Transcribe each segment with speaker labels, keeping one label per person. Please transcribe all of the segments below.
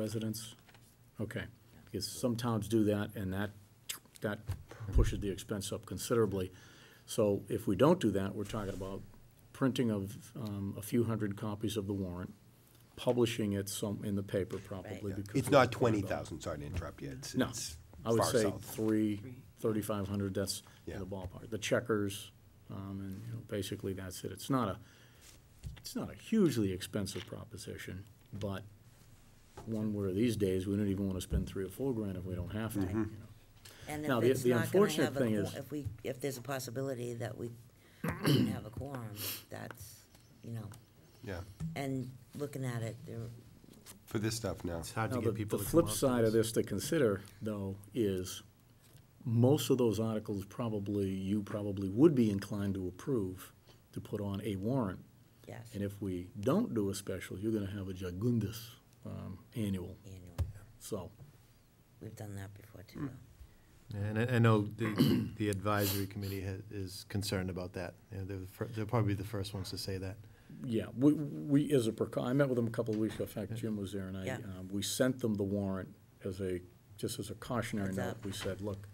Speaker 1: residents? Okay, because some towns do that, and that, that pushes the expense up considerably. So if we don't do that, we're talking about printing of um, a few hundred copies of the warrant, publishing it some, in the paper probably.
Speaker 2: Right.
Speaker 1: because
Speaker 3: It's
Speaker 1: we're
Speaker 3: not
Speaker 1: talking
Speaker 3: twenty
Speaker 1: about-
Speaker 3: thousand, sorry to interrupt you, it's,
Speaker 1: No,
Speaker 3: it's
Speaker 1: I would
Speaker 3: far
Speaker 1: say
Speaker 3: south.
Speaker 1: three, thirty-five hundred, that's in
Speaker 3: Yeah.
Speaker 1: the ballpark. The checkers, um, and, you know, basically that's it. It's not a, it's not a hugely expensive proposition, but one where these days, we don't even wanna spend three or four grand if we don't have to, you
Speaker 4: Mm-hmm.
Speaker 1: know.
Speaker 2: And
Speaker 1: Now,
Speaker 2: if
Speaker 1: the-
Speaker 2: it's
Speaker 1: the
Speaker 2: not gonna
Speaker 1: unfortunate
Speaker 2: have a,
Speaker 1: thing
Speaker 2: quor-
Speaker 1: is-
Speaker 2: if we, if there's a possibility that we can have a quorum, that's, you know,
Speaker 3: Yeah,
Speaker 2: and looking at it, there,
Speaker 3: for this stuff now.
Speaker 4: It's hard to
Speaker 1: Now,
Speaker 4: get
Speaker 1: the,
Speaker 4: people
Speaker 1: the
Speaker 4: to come
Speaker 1: flip
Speaker 4: out to
Speaker 1: side of this to consider, though, is most of those articles probably, you probably would be inclined to approve to put on a warrant.
Speaker 2: yes,
Speaker 1: And if we don't do a special, you're gonna have a jagundus, um, annual,
Speaker 2: annual,
Speaker 1: so.
Speaker 2: we've done that before too. though.
Speaker 4: And I, I know the, the advisory committee ha is concerned about that. You know, they're, the fir- they're probably the first ones to say that.
Speaker 1: Yeah, we, we, as a precau, I met with them a couple of weeks ago, in fact, Jim was there, and I,
Speaker 2: Yeah.
Speaker 1: um, we sent them the warrant as a, just as a cautionary
Speaker 2: Heads
Speaker 1: note.
Speaker 2: up.
Speaker 1: We said, look,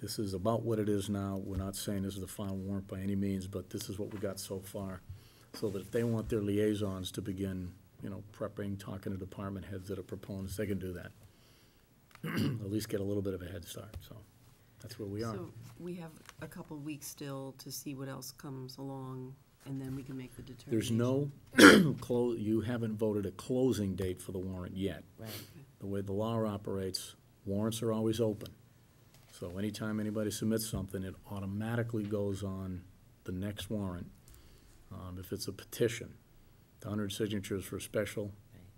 Speaker 1: this is about what it is now, we're not saying this is the final warrant by any means, but this is what we got so far. So that if they want their liaisons to begin, you know, prepping, talking to department heads that are proponents, they can do that. At least get a little bit of a head start, so, that's where we are.
Speaker 5: So we have a couple weeks still to see what else comes along, and then we can make the determination.
Speaker 1: There's no, clo- you haven't voted a closing date for the warrant yet.
Speaker 2: Right,
Speaker 1: the way the law operates, warrants are always open. So anytime anybody submits something, it automatically goes on the next warrant. Um, if it's a petition, the hundred signatures for a special,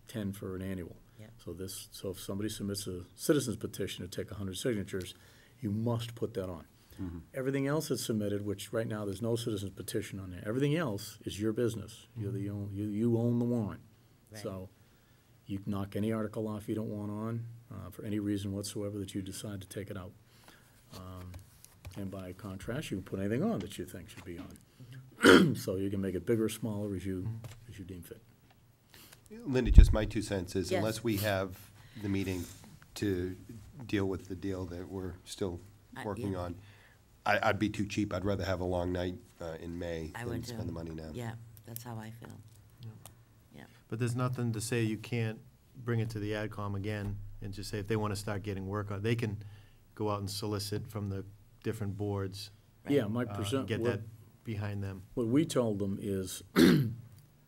Speaker 1: ten for an annual.
Speaker 2: Yep.
Speaker 1: So this, so if somebody submits a citizen's petition to take hundred signatures, you must put that on.
Speaker 4: Mm-hmm.
Speaker 1: Everything else that's submitted, which right now, there's no citizen's petition on there, everything else is your business. You're
Speaker 4: Mm-hmm.
Speaker 1: the, own- you, you own the warrant.
Speaker 2: Right.
Speaker 1: So you can knock any article off you don't want on, uh, for any reason whatsoever that you decide to take it out. Um, And by contrast, you can put anything on that you think should be on. So you can make it bigger, or smaller, as you,
Speaker 4: Mm-hmm.
Speaker 1: as you deem fit.
Speaker 3: Linda, just my two cents is
Speaker 2: Yes.
Speaker 3: unless we have the meeting to deal with the deal that we're still
Speaker 2: I-
Speaker 3: working
Speaker 2: yeah.
Speaker 3: on, I, I'd be too cheap. I'd rather have a long night, uh, in May
Speaker 2: I
Speaker 3: than
Speaker 2: would too.
Speaker 3: spend the money now.
Speaker 2: Yeah, that's how I feel. Yeah,
Speaker 4: But there's nothing to say you can't bring it to the AdCom again and just say if they want to start getting work on, they can go out and solicit from the different boards.
Speaker 1: Yeah, my
Speaker 4: uh,
Speaker 1: percent,
Speaker 4: Get
Speaker 1: what,
Speaker 4: that behind them.
Speaker 1: what we told them is,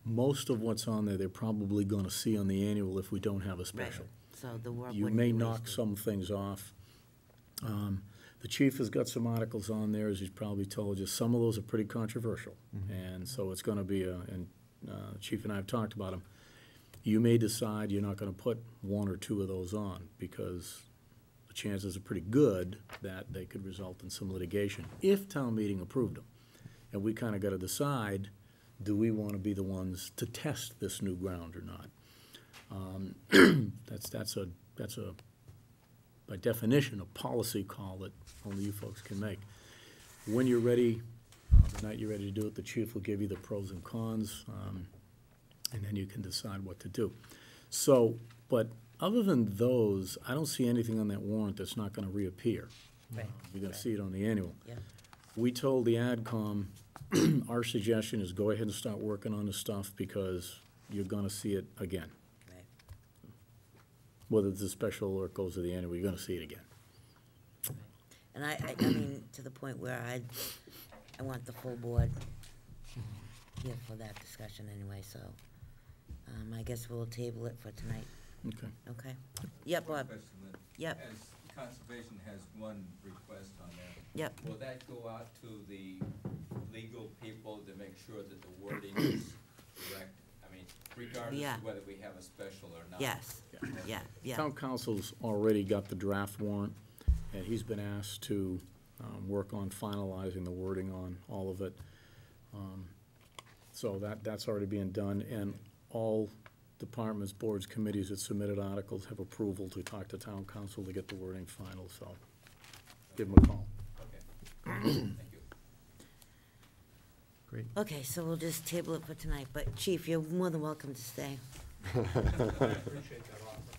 Speaker 1: most of what's on there, they're probably gonna see on the annual if we don't have a
Speaker 2: right,
Speaker 1: special.
Speaker 2: so the work
Speaker 1: you
Speaker 2: wouldn't be
Speaker 1: may knock
Speaker 2: wasted.
Speaker 1: some things off. Um, The chief has got some articles on there, as he's probably told you, some of those are pretty controversial. And so it's gonna be, a- and uh, Chief and I have talked about them. You may decide you're not gonna put one or two of those on, because the chances are pretty good that they could result in some litigation, if town meeting approved them. And we kinda gotta decide, do we wanna be the ones to test this new ground or not? That's, that's a, that's a, by definition, a policy call that only you folks can make. When you're ready, uh, the night you're ready to do it, the chief will give you the pros and cons, um, and then you can decide what to do. So, but other than those, I don't see anything on that warrant that's not gonna reappear.
Speaker 2: Right,
Speaker 1: You're gonna see it on the annual.
Speaker 2: yeah,
Speaker 1: We told the AdCom, our suggestion is go ahead and start working on the stuff because you're gonna see it again
Speaker 2: right,
Speaker 1: whether it's a special or it goes to the annual, you're gonna see it again.
Speaker 2: and I, I, I mean, to the point where I, I want the full board here for that discussion anyway, so, um, I guess we'll table it for tonight,
Speaker 1: Okay.
Speaker 2: okay? Yeah, Bob,
Speaker 6: Question, Lynn.
Speaker 2: Yep.
Speaker 6: As conservation has one request on that.
Speaker 2: Yep.
Speaker 6: Will that go out to the legal people to make sure that the wording is correct? I mean, regardless
Speaker 2: Yeah.
Speaker 6: of whether we have a special or not.
Speaker 2: yes, yeah, yeah.
Speaker 1: Town council's already got the draft warrant, and he's been asked to, um, work on finalizing the wording on all of it. Um, So that, that's already being done, and all departments, boards, committees that submitted articles have approval to talk to town council to get the wording final, so give them a call.
Speaker 6: Okay. Thank you.
Speaker 4: Great.
Speaker 2: Okay, so we'll just table it for tonight, but Chief, you're more than welcome to stay.
Speaker 7: appreciate that offer.